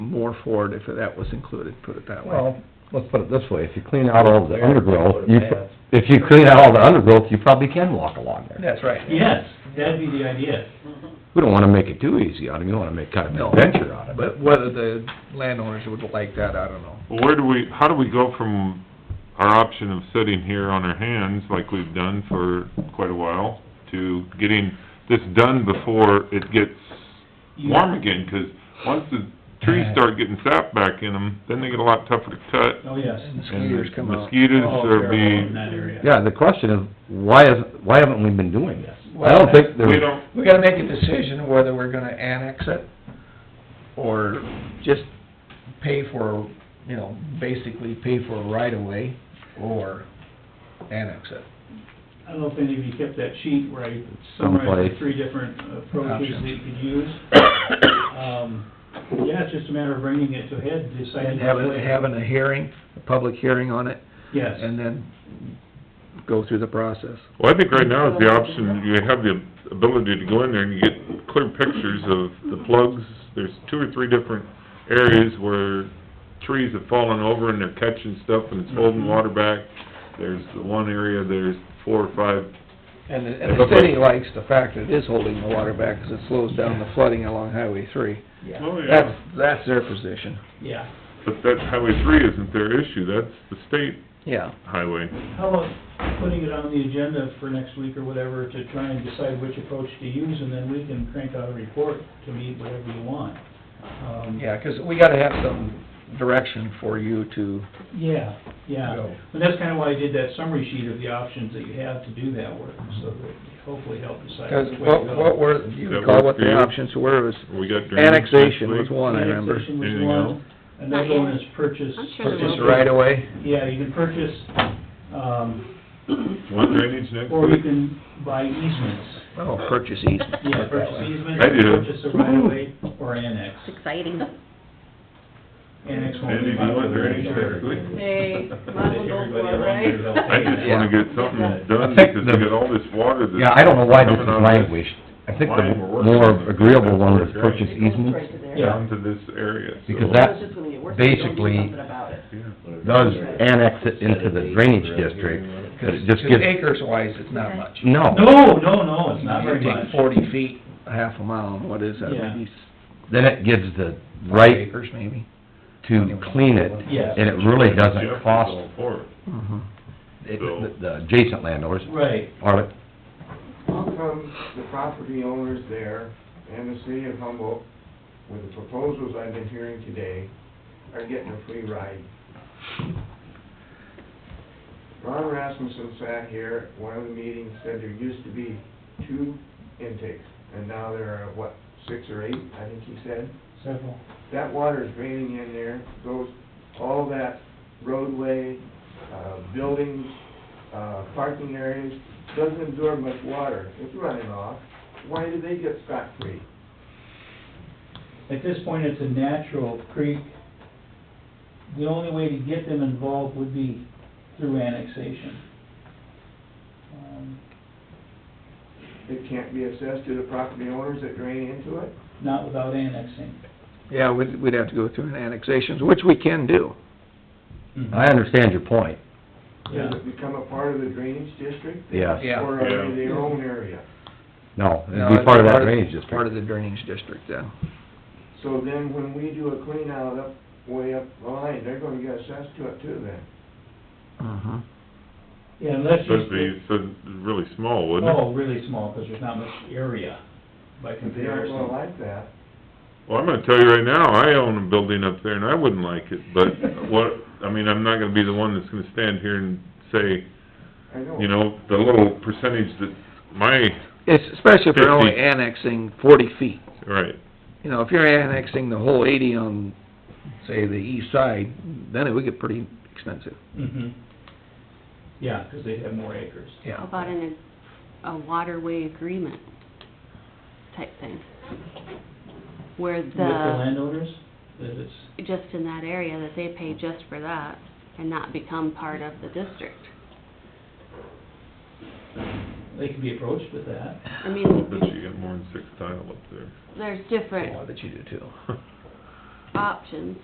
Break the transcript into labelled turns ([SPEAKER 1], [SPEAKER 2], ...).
[SPEAKER 1] more for it if that was included, put it that way.
[SPEAKER 2] Well, let's put it this way, if you clean out all the undergrowth, you,
[SPEAKER 3] Yeah.
[SPEAKER 2] if you clean out all the undergrowth, you probably can walk along there.
[SPEAKER 1] That's right.
[SPEAKER 3] Yes, that'd be the idea.
[SPEAKER 2] We don't wanna make it too easy on them, you wanna make kind of an adventure out of it.
[SPEAKER 1] But whether the landowners would like that, I don't know.
[SPEAKER 4] Well, where do we, how do we go from our option of sitting here on our hands, like we've done for quite a while, to getting this done before it gets warm again? 'Cause once the trees start getting sap back in them, then they get a lot tougher to cut.
[SPEAKER 3] Oh, yes.
[SPEAKER 1] And
[SPEAKER 4] and
[SPEAKER 1] mosquitoes come out.
[SPEAKER 4] Mosquitoes
[SPEAKER 3] Oh,
[SPEAKER 4] are
[SPEAKER 3] In
[SPEAKER 4] being,
[SPEAKER 3] that area.
[SPEAKER 2] Yeah, the question is, why is, why haven't we been doing this? I
[SPEAKER 1] Well,
[SPEAKER 2] don't think
[SPEAKER 4] we
[SPEAKER 2] there's,
[SPEAKER 4] don't,
[SPEAKER 1] We gotta make a decision whether we're gonna annex it or just pay for, you know, basically pay for a right of way or annex it.
[SPEAKER 3] I don't know if any of you kept that sheet where I summarized the
[SPEAKER 2] Someplace.
[SPEAKER 3] three different approaches that you could use. Um, yeah, it's just a matter of bringing it to a head, deciding.
[SPEAKER 1] And having,
[SPEAKER 3] what way.
[SPEAKER 1] having a hearing, a public hearing on it,
[SPEAKER 3] Yes.
[SPEAKER 1] and then go through the process.
[SPEAKER 4] well, I think right now is the option, you have the ability to go in there and you get clear pictures of the plugs. There's two or three different areas where trees have fallen over and they're catching stuff and it's holding water back. There's the one area, there's four or five,
[SPEAKER 1] And the, and the city likes the fact that it is holding the water back, 'cause it slows down the flooding along Highway three.
[SPEAKER 3] Yeah,
[SPEAKER 4] oh,
[SPEAKER 1] That's,
[SPEAKER 4] yeah.
[SPEAKER 1] that's their position,
[SPEAKER 3] yeah.
[SPEAKER 4] But that Highway three isn't their issue, that's the state
[SPEAKER 1] yeah.
[SPEAKER 4] highway.
[SPEAKER 3] How about putting it on the agenda for next week or whatever to try and decide which approach to use, and then we can crank out a report to meet whatever you want. Um,
[SPEAKER 1] Yeah, 'cause we gotta have some direction for you to
[SPEAKER 3] Yeah, yeah.
[SPEAKER 1] go.
[SPEAKER 3] And that's kinda why I did that summary sheet of the options that you have to do that work, so that it hopefully help decide
[SPEAKER 1] Because
[SPEAKER 3] which way to
[SPEAKER 1] what, what
[SPEAKER 3] go.
[SPEAKER 1] were, do you
[SPEAKER 4] That
[SPEAKER 1] recall
[SPEAKER 4] work
[SPEAKER 1] what
[SPEAKER 4] for
[SPEAKER 1] the
[SPEAKER 4] you?
[SPEAKER 1] options were, It was
[SPEAKER 4] We got drainage next
[SPEAKER 1] annexation was
[SPEAKER 4] week.
[SPEAKER 1] one, I remember.
[SPEAKER 3] Annexation was
[SPEAKER 4] Anything
[SPEAKER 3] one.
[SPEAKER 4] else?
[SPEAKER 3] Another one is purchase.
[SPEAKER 5] I'm sure there
[SPEAKER 1] Just
[SPEAKER 5] will
[SPEAKER 1] right away,
[SPEAKER 3] Yeah, you can purchase, um,
[SPEAKER 4] Want drainage next
[SPEAKER 3] or you
[SPEAKER 4] week?
[SPEAKER 3] can buy easements.
[SPEAKER 1] oh, purchase easement.
[SPEAKER 3] Yeah, purchase easement,
[SPEAKER 4] I do.
[SPEAKER 3] purchase a right of way, or annex.
[SPEAKER 5] It's exciting.
[SPEAKER 3] Annex won't be
[SPEAKER 4] Andy, do you want
[SPEAKER 3] popular.
[SPEAKER 4] drainage next week?
[SPEAKER 6] Hey, might as well go
[SPEAKER 3] Everybody
[SPEAKER 6] for it,
[SPEAKER 3] around here is
[SPEAKER 6] right?
[SPEAKER 3] out
[SPEAKER 4] I just
[SPEAKER 3] there.
[SPEAKER 4] wanna get something done
[SPEAKER 2] I think
[SPEAKER 4] because
[SPEAKER 2] the-
[SPEAKER 4] we got all this water that's...
[SPEAKER 2] yeah, I don't know why this is
[SPEAKER 4] coming out of
[SPEAKER 2] languished. I think the
[SPEAKER 4] Mine were worse.
[SPEAKER 2] more agreeable one is purchase
[SPEAKER 6] It goes
[SPEAKER 2] easement,
[SPEAKER 6] right to there.
[SPEAKER 3] Yeah.
[SPEAKER 4] Down to this area, so...
[SPEAKER 2] because Mm-hmm. that
[SPEAKER 6] It's just gonna get worse if you don't do
[SPEAKER 2] basically
[SPEAKER 6] something about it.
[SPEAKER 4] Yeah.
[SPEAKER 2] does annex it into the drainage district, but it just Mm. gives,
[SPEAKER 1] acres wise, it's not much.
[SPEAKER 2] no,
[SPEAKER 3] No, no, no, it's not
[SPEAKER 1] You
[SPEAKER 3] very much.
[SPEAKER 1] take forty feet, a half a mile, and what is that,
[SPEAKER 3] Yeah.
[SPEAKER 1] maybe s-
[SPEAKER 2] then it gives the
[SPEAKER 1] five
[SPEAKER 2] right
[SPEAKER 1] acres maybe?
[SPEAKER 2] to clean it,
[SPEAKER 3] Yes.
[SPEAKER 2] and it really doesn't cost
[SPEAKER 4] Jeff is all for it.
[SPEAKER 1] Mhm.
[SPEAKER 2] it- the the adjacent landowners,
[SPEAKER 3] Right,
[SPEAKER 2] are,
[SPEAKER 7] How come the property owners there and the city of Humboldt, with the proposals I've been hearing today, are getting a free ride? Ron Rasmussen sat here at one of the meetings, said there used to be two intakes, and now there are, what, six or eight, I think he said?
[SPEAKER 3] several.
[SPEAKER 7] That water's draining in there, goes all that roadway, uh, buildings, uh, parking areas, doesn't absorb much water. It's running off. Why do they get scot-free?
[SPEAKER 3] At this point, it's a natural creek. The only way to get them involved would be through annexation. Um,
[SPEAKER 7] It can't be assessed to the property owners that drain into it?
[SPEAKER 3] Not without annexing.
[SPEAKER 1] Yeah, we'd, we'd have to go through an annexations, which we can do.
[SPEAKER 2] I understand your point,
[SPEAKER 3] Yeah.
[SPEAKER 7] Does it become a part of the drainage district?
[SPEAKER 2] yes,
[SPEAKER 1] Yeah.
[SPEAKER 7] Or are they their own area?
[SPEAKER 2] no,
[SPEAKER 1] No,
[SPEAKER 2] it'd be
[SPEAKER 1] it's
[SPEAKER 2] part of that drainage district.
[SPEAKER 1] Part of the drainage district, yeah.
[SPEAKER 7] So then when we do a clean out up, way up the line, they're gonna get assessed to it too then.
[SPEAKER 2] Mm-hmm.
[SPEAKER 1] Mhm.
[SPEAKER 3] Yeah, unless you...
[SPEAKER 4] That'd be, so, really small, wouldn't it?
[SPEAKER 3] Oh, really small, because there's not much area by
[SPEAKER 7] But They aren't gonna
[SPEAKER 3] comparison.
[SPEAKER 7] like that.
[SPEAKER 4] Well, I'm gonna tell you right now, I own a building up there and I wouldn't like it, but what, I mean, I'm not gonna be the one that's gonna stand here and say,
[SPEAKER 7] I know.
[SPEAKER 4] you know, the little percentage that my,
[SPEAKER 1] It's especially if you're only
[SPEAKER 4] Fifty.
[SPEAKER 1] annexing forty feet.
[SPEAKER 4] right,
[SPEAKER 1] You know, if you're annexing the whole eighty on, say, the east side, then it would get pretty expensive.
[SPEAKER 3] hmm Yeah, because they have more acres.
[SPEAKER 1] Yeah.
[SPEAKER 5] How about in a, a waterway agreement type thing? Where
[SPEAKER 3] With the
[SPEAKER 5] the,
[SPEAKER 3] landowners, that it's,
[SPEAKER 5] just in that area, that they pay just for that and not become part of the district.
[SPEAKER 3] they can be approached with that.
[SPEAKER 5] I
[SPEAKER 4] but
[SPEAKER 5] mean,
[SPEAKER 4] you get more than six tile up there.
[SPEAKER 5] there's different
[SPEAKER 1] that you do too.
[SPEAKER 5] Uh, options